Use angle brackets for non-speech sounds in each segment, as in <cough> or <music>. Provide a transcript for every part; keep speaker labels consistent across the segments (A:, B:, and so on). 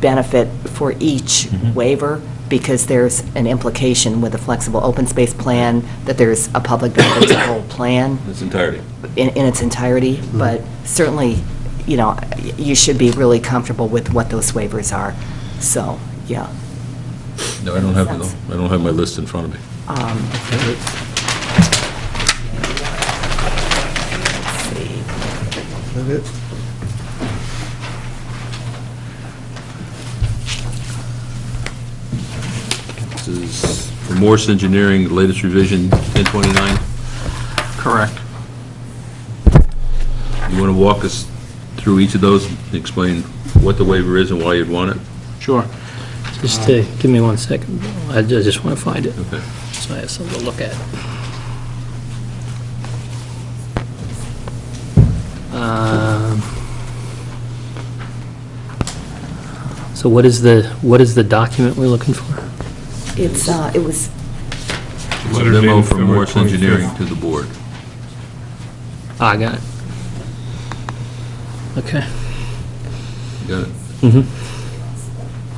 A: benefit for each
B: Mhm.
A: waiver, because there's an implication with a flexible open space plan, that there's a public benefit to the <coughs> whole plan
B: its entirety.
A: in, in its entirety, but certainly, you know, you should be really comfortable with what those waivers are, so, yeah.
B: No, I don't have, it, though. I don't have my list in front of me.
A: Um, let's see.
B: This is for Morse Engineering, the latest revision, 1029.
C: Correct.
B: You want to walk us through each of those, and explain what the waiver is and why you'd want it?
C: Sure.
D: Just uh, give me one second. I ju- I just want to find it,
B: Okay.
D: so I have something to look at. Um, So what is the, what is the document we're looking for?
A: It's, uh, it was,
B: It's a memo from Morse Engineering to the board.
D: Ah, I got it. Okay.
B: You Got it?
D: Mhm.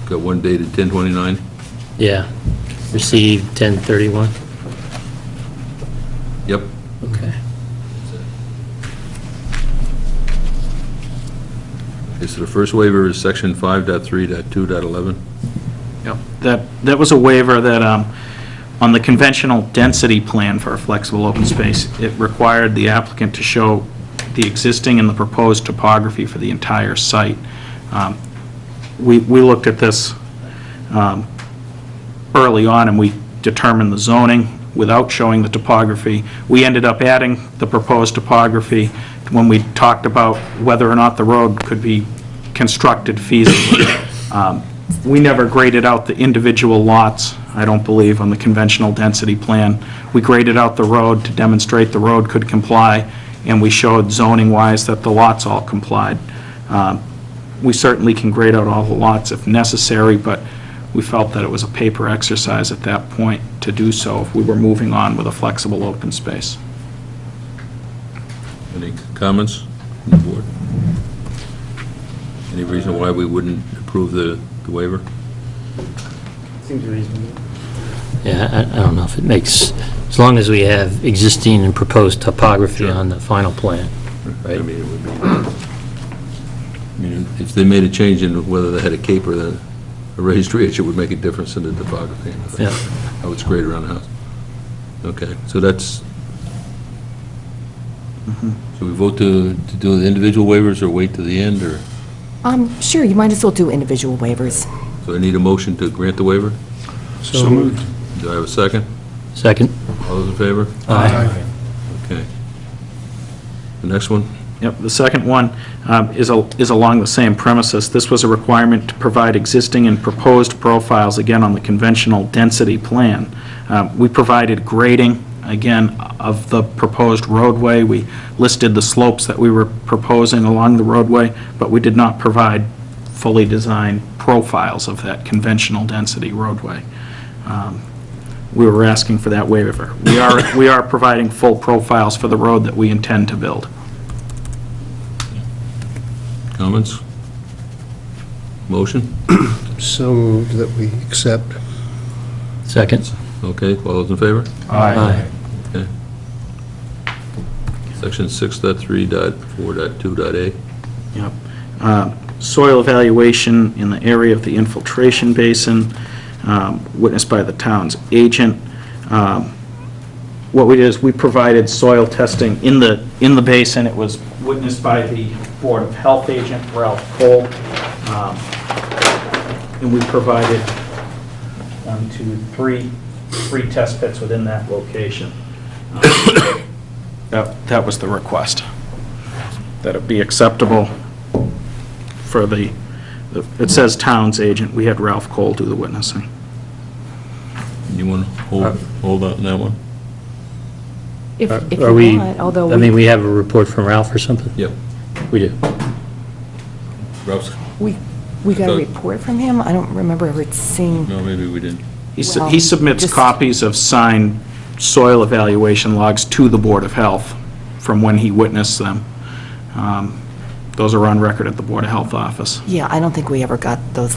B: Got one dated 1029?
D: Yeah. Received 1031.
B: Yep.
D: Okay.
B: Okay, so the first waiver is section 5.3.2.11.
C: Yep. That, that was a waiver that, um, on the conventional density plan for a flexible open space, it required the applicant to show the existing and the proposed topography for the entire site. Um, We, we looked at this um, early on, and we determined the zoning without showing the topography. We ended up adding the proposed topography when we talked about whether or not the road could be constructed feasibly. Um, We never graded out the individual lots, I don't believe, on the conventional density plan. We graded out the road to demonstrate the road could comply, and we showed zoning-wise that the lots all complied. Um, We certainly can grade out all the lots if necessary, but we felt that it was a paper exercise at that point to do so if we were moving on with a flexible open space.
B: Any comments from the board? Any reason why we wouldn't approve the the waiver?
E: Seems reasonable.
D: Yeah, I- I don't know if it makes, as long as we have existing and proposed topography on the final plan.
B: I mean, it would be, I mean, if they made a change in whether they had a cape or the- a raised ridge, it would make a difference in the topography. and everything.
D: Yeah.
B: How it's graded around the house. Okay, so that's, so we vote to, to do the individual waivers or wait to the end, or,
A: um, sure, you might as well do individual waivers.
B: so I need a motion to grant the waiver?
D: So moved.
B: Do I have a second?
D: Second?
B: All those in favor?
D: Aye.
B: Okay. The next one?
C: Yep, the second one um, is al- is along the same premises. This was a requirement to provide existing and proposed profiles, again, on the conventional density plan. Um, We provided grading, again, of the proposed roadway. We listed the slopes that we were proposing along the roadway, but we did not provide fully designed profiles of that conventional density roadway. Um, We were asking for that waiver. We are We are providing full profiles for the road that we intend to build.
B: Comments? Motion?
F: So moved that we accept.
D: Second?
B: Okay, all those in favor?
D: Aye.
B: Section 6.3.4.2.a.
C: Yep. Uh, Soil evaluation in the area of the infiltration basin um, witnessed by the town's agent. Um, What we did is, we provided soil testing in the, in the basin. It was witnessed by the Board of Health agent, Ralph Cole. Um, And we provided one, two, three, three test pits within that location. Um, That that was the request that it be acceptable for the, it says town's agent, we had Ralph Cole do the witnessing.
B: You want to hold, hold on that one?
A: If,
D: Are-
A: if
D: are
A: you
D: we-
A: want, although
D: I mean,
A: we,
D: we have a report from Ralph or something?
B: Yep.
D: We do.
B: Ralph's,
A: we we got a
B: thought-
A: report from him, I don't remember ever seeing,
B: no, maybe we didn't.
C: He su-
A: Well,
C: he submits
A: just-
C: copies of signed soil evaluation logs to the Board of Health from when he witnessed them. Um, Those are on record at the Board of Health office.
A: yeah, I don't think we ever got those